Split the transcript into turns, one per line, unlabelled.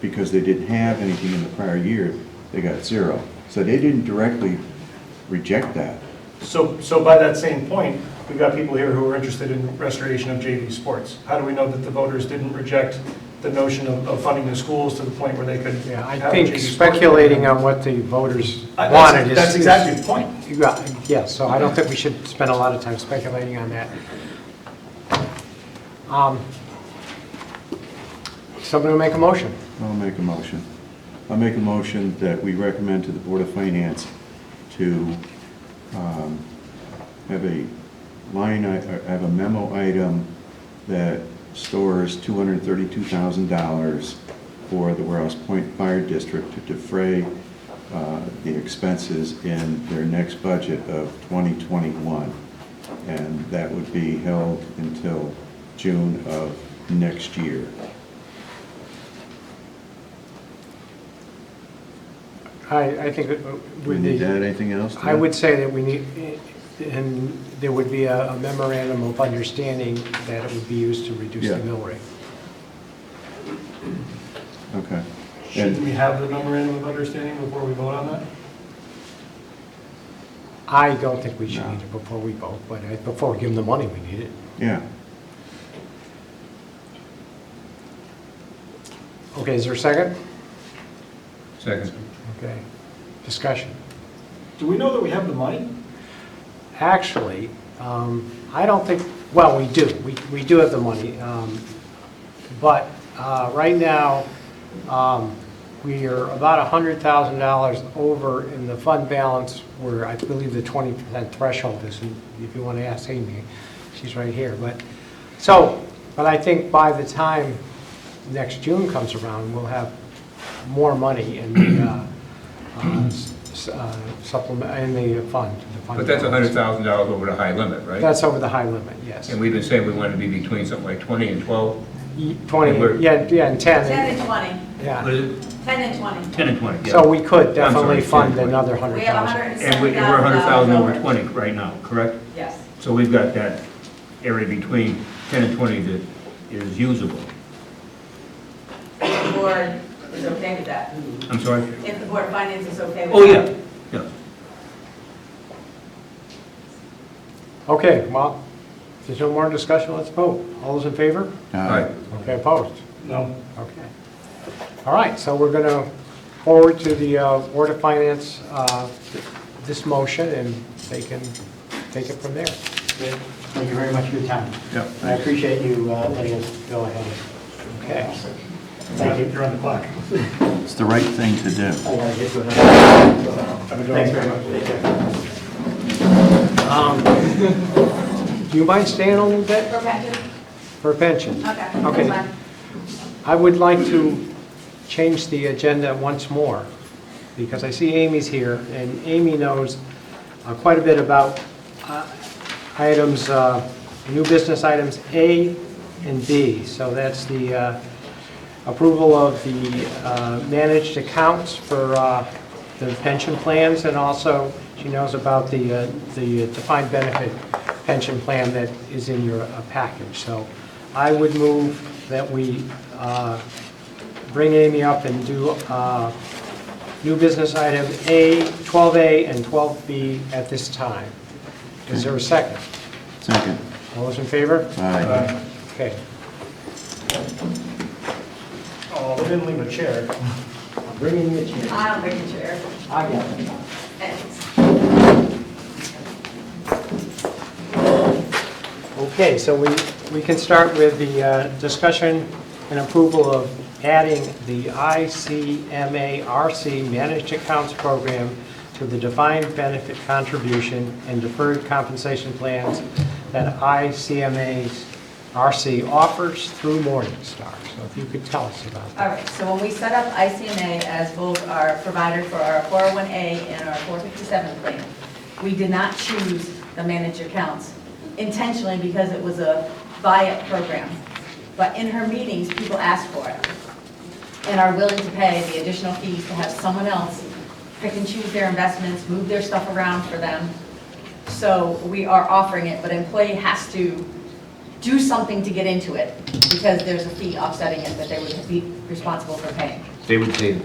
because they didn't have anything in the prior year, they got zero. So they didn't directly reject that.
So, so by that same point, we've got people here who are interested in restoration of JV sports. How do we know that the voters didn't reject the notion of, of funding the schools to the point where they could
Yeah, I
have a
think
JV sport?
speculating on what the voters
I- that's-
wanted is...
That's exactly the point.
Yeah, yeah, so I don't think we should spend a lot of time speculating on that. Um, Someone will make a motion.
I'll make a motion. I'll make a motion that we recommend to the Board of Finance to um, have a line, i- uh, have a memo item that stores $232,000 for the Warehouse Point Fire District to defray uh, the expenses in their next budget of 2021. And that would be held until June of next year.
I, I think that
Do we
with
need to
the,
add anything else? to
I
that?
would say that we need, and there would be a a memorandum of understanding that it would be used to reduce the
Yeah.
mill rate.
Okay.
Should
And
we have the memorandum of understanding before we vote on that?
I don't think we should
No.
need it before we vote, but I- before we give them the money, we need it.
Yeah,
Okay, is there a second?
Second.
Okay, discussion.
Do we know that we have the money?
Actually, um, I don't think, well, we do, we we do have the money. um, But uh, right now, um, we are about $100,000 over in the fund balance where I believe the 20% threshold is, and if you want to ask Amy, she's right here, but, so, but I think by the time next June comes around, we'll have more money in the uh, uh, s- s- uh, supplement, in the fund. the fund
But that's
balance.
hundred thousand dollars over the high limit, right?
That's over the high limit, yes.
And we've been saying we want to be between something like twenty and twelve.
Y-
and we're-
20, yeah, yeah, and 10,
10 and 20,
yeah.
is it?
10 and 20.
Ten and twenty, yeah.
So we could definitely
sorry,
fund
10.
another
We have
100,000.
And
170,000.
we- and we're hundred thousand over twenty right now, correct?
Yes,
So we've got that area between ten and twenty that is usable.
if the board is okay with that.
I'm sorry?
If the board of finance is okay with that.
Oh, yeah, yeah.
Okay, well, if there's no more discussion, let's vote. All those in favor?
All right.
uh,
Okay, opposed?
No.
Okay. All right, so we're going to forward to the uh, Board of Finance uh, th- this motion, and they can take it from there.
Thank you very much for your time.
yeah,
And I appreciate you uh, letting us go ahead.
Okay.
Thank you.
You're on the clock.
it's the right thing to do.
I gotta get to another. Thanks very much. Take care.
Um, Do you mind staying a little bit
For pension?
for pension?
Okay.
Okay.
that's fine.
I would like to change the agenda once more, because I see Amy's here, and Amy knows uh, quite a bit about uh, items, uh, new business items A and B. So that's the uh, approval of the uh, managed accounts for uh, the pension plans, and also she knows about the uh, the defined benefit pension plan that is in your uh, package. So I would move that we uh, bring Amy up and do uh, new business item A, 12A and 12B at this time. Is there a second?
Second.
All those in favor?
Aye.
Okay.
Oh, they didn't leave a chair.
I'm bringing the chair.
I don't bring the chair.
I got it.
Thanks.
Okay, so we, we can start with the uh, discussion and approval of adding the ICMARC Managed Accounts Program to the defined benefit contribution and deferred compensation plans that ICMARC offers through Morningstar. So if you could tell us about
All
that.
right, so when we set up ICMA as both our provider for our 401A and our 457 plan, we did not choose the manager accounts intentionally because it was a buy-up program. But in her meetings, people asked for it and are willing to pay the additional fees to have someone else pick and choose their investments, move their stuff around for them. So we are offering it, but employee has to do something to get into it because there's a fee offsetting it that they would be responsible for paying.
They would say